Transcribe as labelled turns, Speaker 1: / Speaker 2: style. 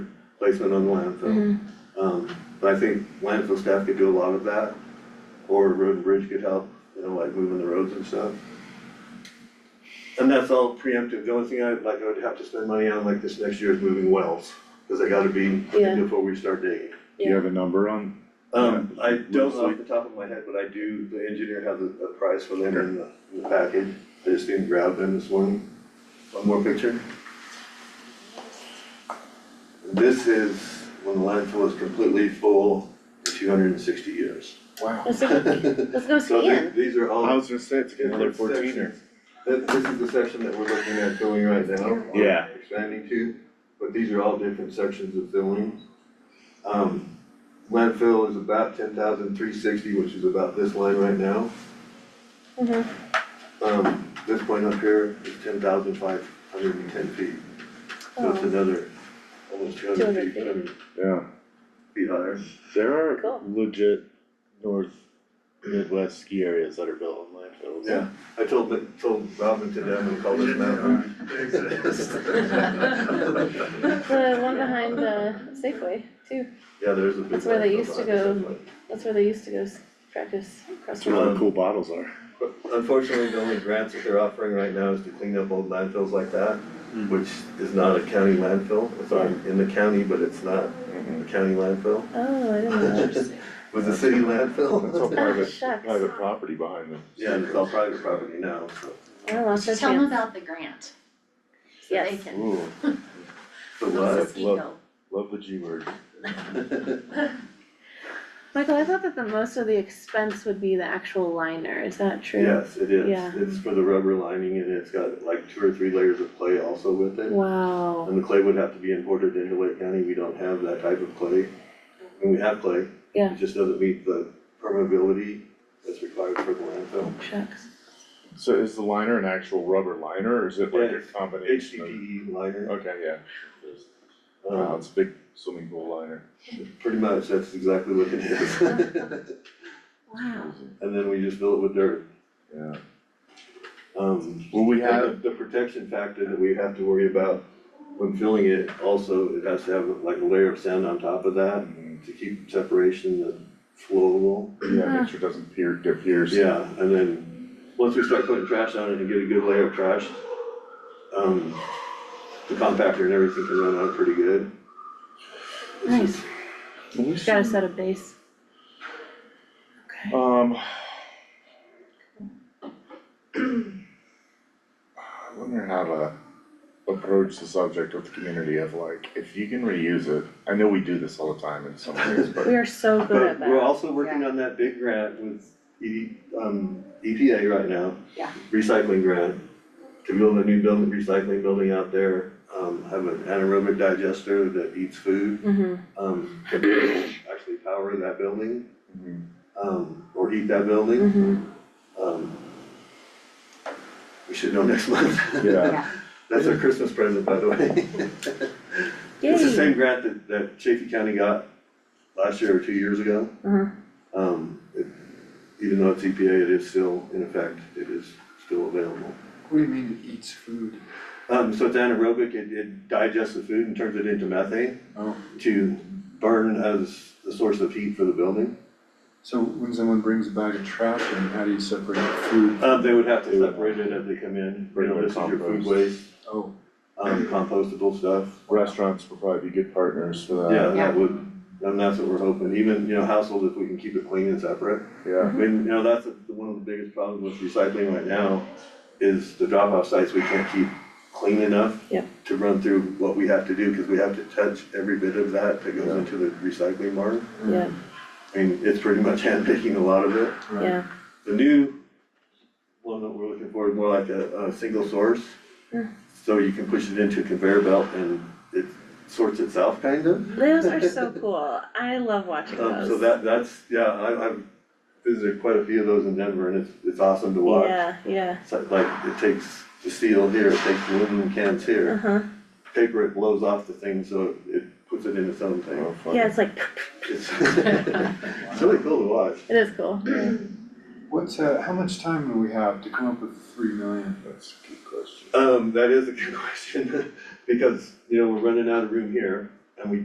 Speaker 1: placement on the landfill.
Speaker 2: Mhm.
Speaker 1: Um, but I think landfill staff could do a lot of that, or road and bridge could help, you know, like moving the roads and stuff. And that's all preemptive, the only thing I, like, I would have to spend money on like this next year is moving wells, cause I gotta be,
Speaker 2: Yeah.
Speaker 1: before we start digging.
Speaker 3: Do you have a number on,
Speaker 1: Um, I don't know
Speaker 3: Loosely.
Speaker 1: off the top of my head, but I do, the engineer has a, a price for them in the, in the package, I just didn't grab them this morning. One more picture. This is when the landfill is completely full in two hundred and sixty years.
Speaker 2: Let's go, let's go
Speaker 1: So the-
Speaker 2: skiing.
Speaker 1: these are all.
Speaker 3: I was gonna say, it's gonna be a
Speaker 1: different
Speaker 3: fourteener.
Speaker 1: sections. This, this is the section that we're looking at filling right now. or
Speaker 3: Yeah.
Speaker 1: Expanding to, but these are all different sections of filling. Um, landfill is about ten thousand three sixty, which is about this line right now.
Speaker 2: Mhm.
Speaker 1: Um, this point up here is ten thousand five hundred and ten feet, so it's
Speaker 2: Oh.
Speaker 1: another almost two
Speaker 2: 200
Speaker 1: hundred feet,
Speaker 2: feet.
Speaker 1: 200
Speaker 3: Yeah,
Speaker 1: feet higher.
Speaker 3: there are
Speaker 2: Cool.
Speaker 3: legit north Midwest ski areas that are built on landfills.
Speaker 1: Yeah, I told, the- told Robin today I'm gonna call this mountain.
Speaker 2: The one behind the Safeway too.
Speaker 1: Yeah, there's a big.
Speaker 2: That's where they
Speaker 1: landfill
Speaker 2: used to
Speaker 1: behind us,
Speaker 2: go.
Speaker 1: that's why.
Speaker 2: That's where they used to go s- practice
Speaker 3: That's where all
Speaker 2: crosswalk.
Speaker 3: the cool bottles are.
Speaker 1: But Unfortunately, the only grants that they're offering right now is to clean up old landfills like that, which is not a county landfill, it's on, in the county, but it's not a county landfill.
Speaker 2: Oh, I didn't know.
Speaker 1: Was a city landfill?
Speaker 2: private- shucks. private
Speaker 3: property behind them.
Speaker 1: Yeah, and it's all private property now, so,
Speaker 2: I lost our
Speaker 4: Tell them
Speaker 2: chance.
Speaker 4: about the grant. So they
Speaker 2: Yes.
Speaker 4: can,
Speaker 3: Ooh,
Speaker 1: so
Speaker 4: little
Speaker 1: what?
Speaker 4: mosquito.
Speaker 3: love the G word.
Speaker 2: Michael, I thought that the most of the expense would be the actual liner. Is that true?
Speaker 1: Yes, it is,
Speaker 2: Yeah.
Speaker 1: it's for the rubber lining and it's got like two or three layers of clay also with it.
Speaker 2: Wow.
Speaker 1: And the clay would have to be imported into Lake County, we don't have that type of clay. I mean, we have clay.
Speaker 2: Yeah.
Speaker 1: It just doesn't meet the permeability that's required for the landfill.
Speaker 2: Shucks.
Speaker 3: So is the liner an actual rubber liner or is it
Speaker 1: Yeah,
Speaker 3: like a
Speaker 1: it's
Speaker 3: combination of?
Speaker 1: HDPE E liner,
Speaker 3: Okay, yeah. Wow,
Speaker 1: um,
Speaker 3: it's a big swimming pool liner.
Speaker 1: pretty much, that's exactly what it is. And
Speaker 2: Wow.
Speaker 1: then we just fill it with dirt.
Speaker 3: Yeah.
Speaker 1: Um,
Speaker 3: Will we
Speaker 1: we
Speaker 3: have,
Speaker 1: have the protection factor that we have to worry about when filling it, also, it has to have like a layer of sand on top of that
Speaker 3: Mm,
Speaker 1: to keep separation that's flowable.
Speaker 3: yeah, make sure it doesn't pier, get pierced.
Speaker 1: Yeah, and then, once we start putting trash on it and get a good layer of trash, um, the compactor and everything can run on it pretty good.
Speaker 2: Nice.
Speaker 3: Will we
Speaker 2: Gotta
Speaker 3: see-
Speaker 2: set a base. Okay.
Speaker 3: Um. I wonder how to approach the subject with the community of like, if you can reuse it, I know we do this all the time in some ways,
Speaker 2: We
Speaker 3: but.
Speaker 2: are so good
Speaker 1: But
Speaker 2: at
Speaker 1: we're
Speaker 2: that.
Speaker 1: also working
Speaker 4: Yeah.
Speaker 1: on that big grant with E, um, EPA right now.
Speaker 4: Yeah.
Speaker 1: Recycling grant, to build a new building, recycling building out there, um, have an anaerobic digester that eats food,
Speaker 2: hmm
Speaker 1: um, that will actually power that building,
Speaker 3: Mhm.
Speaker 1: um, or heat that building.
Speaker 2: hmm
Speaker 1: Um, We should know next month.
Speaker 3: Yeah,
Speaker 4: Yeah,
Speaker 1: That's our Christmas present, by the way. It's the
Speaker 2: Yay.
Speaker 1: same grant that, that Chaffey County got last year or two years ago.
Speaker 2: Mhm.
Speaker 1: Um, it, even though it's EPA, it is still in effect, it is still available.
Speaker 5: What do you mean it eats food?
Speaker 1: Um, so it's anaerobic, it, it digests the food and turns it into methane
Speaker 5: Oh.
Speaker 1: to burn as the source of heat for the building.
Speaker 5: So when someone brings a bag of trash in, how do you separate the food?
Speaker 1: Uh, they would have to separate it as they come in, you know, this is your food
Speaker 3: Compost.
Speaker 1: waste,
Speaker 5: Oh,
Speaker 1: um, compostable stuff.
Speaker 3: restaurants would probably be good partners for
Speaker 1: Yeah,
Speaker 3: that,
Speaker 4: Yeah.
Speaker 1: that would, and that's what we're hoping, even, you know, households, if we can keep it clean and separate. I
Speaker 3: yeah,
Speaker 1: mean, you know, that's the- one of the biggest problems with recycling right now, is the drop-off sites, we can't keep clean enough
Speaker 2: Yep.
Speaker 1: to run through what we have to do, cause we have to touch every bit of that that goes into the recycling mart.
Speaker 2: Yeah,
Speaker 1: I mean, it's pretty much handpicking a lot of it.
Speaker 5: right.
Speaker 2: yeah.
Speaker 1: The new one that we're looking for is more like a, a single source.
Speaker 2: Mm.
Speaker 1: So you can push it into a conveyor belt and it sorts itself, kind of.
Speaker 2: Those are so cool. I love watching
Speaker 1: Um, so
Speaker 2: those.
Speaker 1: that, that's, yeah, I, I've visited quite a few of those in Denver and it's, it's awesome to watch.
Speaker 2: Yeah, yeah.
Speaker 1: It's like- like, it takes the steel here, it takes the aluminum cans here,
Speaker 2: Uh-huh.
Speaker 1: paper, it blows off the thing, so it puts it in its own thing.
Speaker 3: Oh, fun.
Speaker 2: Yeah, it's like,
Speaker 1: It's, it's really cool to watch.
Speaker 2: it is cool.
Speaker 5: What's, uh, how much time do we have to come up with three million?
Speaker 3: That's a good question.
Speaker 1: Um, that is a good question, because, you know, we're running out of room here,